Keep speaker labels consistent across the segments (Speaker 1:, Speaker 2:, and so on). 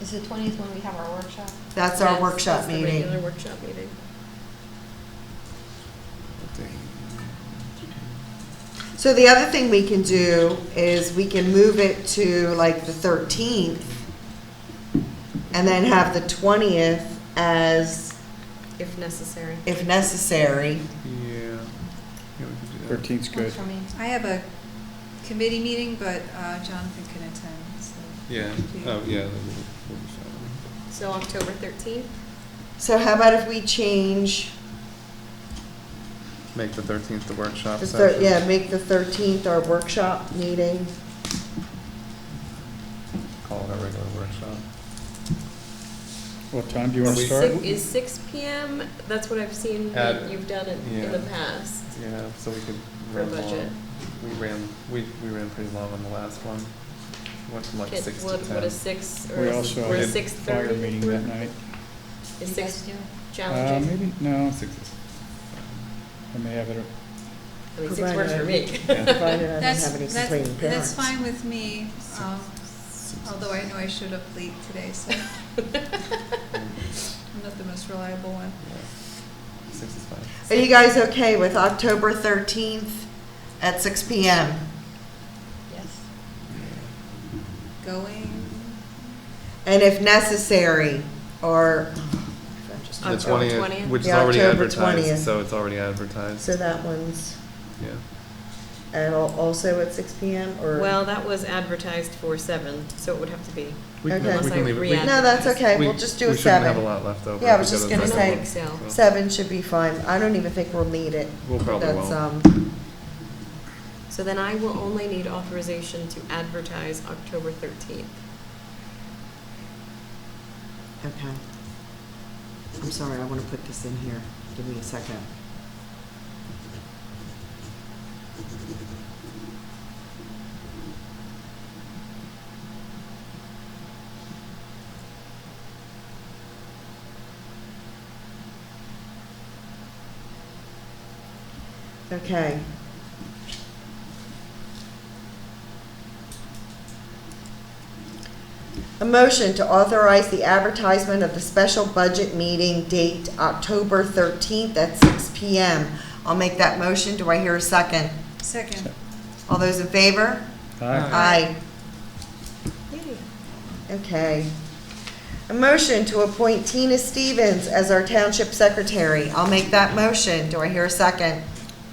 Speaker 1: Is the twentieth when we have our workshop?
Speaker 2: That's our
Speaker 3: Yes,
Speaker 2: workshop
Speaker 3: that's the
Speaker 2: meeting.
Speaker 3: regular workshop meeting.
Speaker 2: So the other thing we can do is we can move it to like the thirteenth and then have the twentieth as,
Speaker 3: If necessary.
Speaker 2: if necessary.
Speaker 4: Yeah. Yeah, we could do that.
Speaker 5: Thirteenth's good.
Speaker 1: Works for me.
Speaker 6: I have a committee meeting, but uh, Jonathan can attend, so.
Speaker 4: Yeah, oh, yeah. that would- that would sound
Speaker 3: So October 13th?
Speaker 2: So how about if we change
Speaker 4: right. Make the thirteenth the workshop
Speaker 2: the thir-
Speaker 4: session.
Speaker 2: yeah, make the thirteenth our workshop meeting?
Speaker 4: Call it a regular workshop.
Speaker 5: What time do you want to
Speaker 4: Six-
Speaker 5: start?
Speaker 3: Six- Is 6 PM? That's what I've seen that
Speaker 4: At-
Speaker 3: you've done it in
Speaker 4: yeah.
Speaker 3: the past.
Speaker 4: Yeah, so we could
Speaker 3: For
Speaker 4: run
Speaker 3: budget.
Speaker 4: long. We ran, we, we ran pretty long on the last one. Went from like
Speaker 3: Get-
Speaker 4: six to
Speaker 3: what- What
Speaker 4: ten.
Speaker 3: is 6 or
Speaker 5: We
Speaker 3: is
Speaker 5: also
Speaker 3: or
Speaker 5: had
Speaker 3: is
Speaker 5: a fire
Speaker 3: 6:30?
Speaker 5: meeting that night.
Speaker 1: Do
Speaker 3: Is
Speaker 1: you
Speaker 3: 6
Speaker 1: guys do?
Speaker 5: Uh,
Speaker 3: challenging?
Speaker 5: Maybe, no,
Speaker 4: Oh, Six is-
Speaker 5: I may have it, at-
Speaker 3: I mean, 6 works for me.
Speaker 2: Provided I don't
Speaker 6: That's-
Speaker 2: have any
Speaker 6: that's-
Speaker 2: complaining
Speaker 6: That's
Speaker 2: parents.
Speaker 6: fine with me, um, although I know I showed up late today, so I'm not the most reliable one.
Speaker 4: yeah. Six is fine.
Speaker 2: Are you guys okay with October thirteenth at six P M?
Speaker 1: Yes.
Speaker 6: Going,
Speaker 2: And if necessary, or,
Speaker 4: The
Speaker 3: October
Speaker 4: 20th,
Speaker 3: 20th?
Speaker 4: which is
Speaker 2: Yeah,
Speaker 4: already
Speaker 2: October
Speaker 4: advertised,
Speaker 2: 20th.
Speaker 4: so it's already advertised,
Speaker 2: so that one's,
Speaker 4: yeah.
Speaker 2: and al- also at six P M or?
Speaker 3: Well, that was advertised for 7, so it would have to be.
Speaker 4: We can-
Speaker 2: Okay.
Speaker 4: we can leave it- we-
Speaker 3: Unless I
Speaker 2: No, that's okay,
Speaker 4: we-
Speaker 2: we'll just do a
Speaker 4: We shouldn't have a
Speaker 2: seven.
Speaker 4: lot left over.
Speaker 2: Yeah, I
Speaker 4: if
Speaker 2: was
Speaker 4: we go
Speaker 2: just
Speaker 4: to the
Speaker 2: gonna
Speaker 4: second
Speaker 2: say,
Speaker 4: one.
Speaker 3: so.
Speaker 4: So,
Speaker 2: Seven should be fine, I don't even think we'll need it.
Speaker 4: We'll probably
Speaker 2: That's,
Speaker 4: won't.
Speaker 2: um,
Speaker 3: So then I will only need authorization to advertise October 13th.
Speaker 2: okay. I'm sorry, I wanna put this in here, give me a second. Okay. A motion to authorize the advertisement of the special budget meeting date October 13th at 6 PM. I'll make that motion. Do I hear a second?
Speaker 6: second,
Speaker 2: All those in favor?
Speaker 5: Aye.
Speaker 2: Aye.
Speaker 3: Yay.
Speaker 2: Okay. A motion to appoint Tina Stevens as our township secretary. I'll make that motion. Do I hear a second?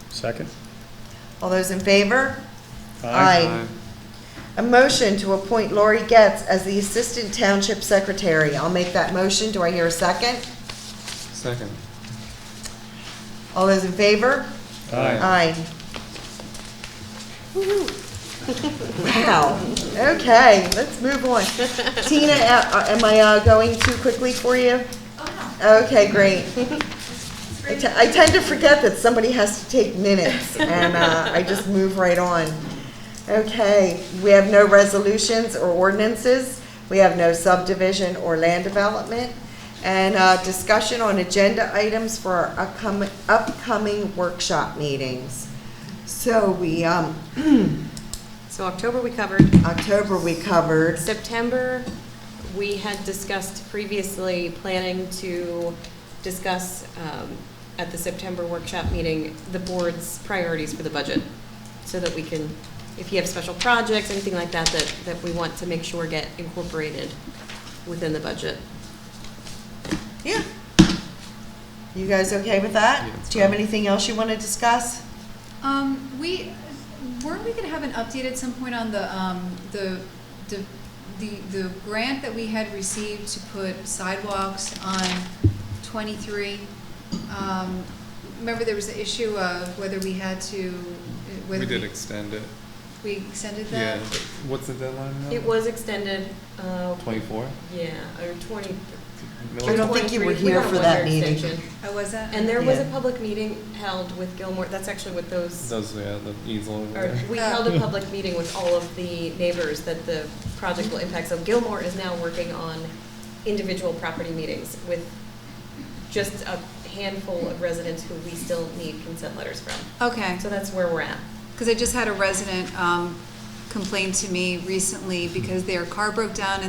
Speaker 5: second?
Speaker 2: All those in favor? Aye.
Speaker 4: Aye.
Speaker 2: A motion to appoint Lori Getz as the assistant township secretary. I'll make that motion. Do I hear a second?
Speaker 4: Second.
Speaker 2: All those in favor?
Speaker 4: Uh,
Speaker 5: Aye.
Speaker 2: Aye. Wow, okay, let's move on. Tina, a- am I uh, going too quickly for you?
Speaker 6: oh
Speaker 2: Okay, great.
Speaker 6: no.
Speaker 2: I te- I tend to forget that somebody has to take minutes, and uh, I just move right on. Okay, we have no resolutions or ordinances, we have no subdivision or land development, and uh, discussion on agenda items for our upcoming, upcoming workshop meetings. So we, um,
Speaker 3: So October we covered.
Speaker 2: October we covered,
Speaker 3: September, we had discussed previously planning to discuss um, at the September workshop meeting, the board's priorities for the budget, so that we can, if you have special projects, anything like that, that, that we want to make sure get incorporated within the budget.
Speaker 2: yeah. You guys okay with that?
Speaker 4: Yeah, it's
Speaker 2: Do you have
Speaker 4: fine.
Speaker 2: anything else you want to discuss?
Speaker 6: Um, we, weren't we gonna have an update at some point on the, um, the, the, the, the grant that we had received to put sidewalks on twenty-three? Um, remember there was the issue of whether we had to, uh,
Speaker 4: We
Speaker 6: whether
Speaker 4: did
Speaker 6: we,
Speaker 4: extend it,
Speaker 6: we extended
Speaker 4: yeah.
Speaker 6: that?
Speaker 4: What's the deadline now?
Speaker 3: It was extended, uh,
Speaker 4: Twenty-four?
Speaker 3: yeah, or twenty.
Speaker 4: Middle-
Speaker 2: I don't think you were
Speaker 3: 23. We
Speaker 2: here
Speaker 3: had a
Speaker 2: for that
Speaker 3: one-year
Speaker 2: meeting.
Speaker 3: extension.
Speaker 6: I was that?
Speaker 3: And there was a
Speaker 2: Yeah.
Speaker 3: public meeting held with Gilmore, that's actually with those
Speaker 4: Those, yeah, the easel. over
Speaker 3: Or
Speaker 4: there.
Speaker 3: we held a public meeting with all of the neighbors that the project will impact. So Gilmore is now working on individual property meetings with just a handful of residents who we still need consent letters from.
Speaker 6: Okay.
Speaker 3: So that's where we're at.
Speaker 6: Because I just had a resident um, complain to me recently because their car broke down and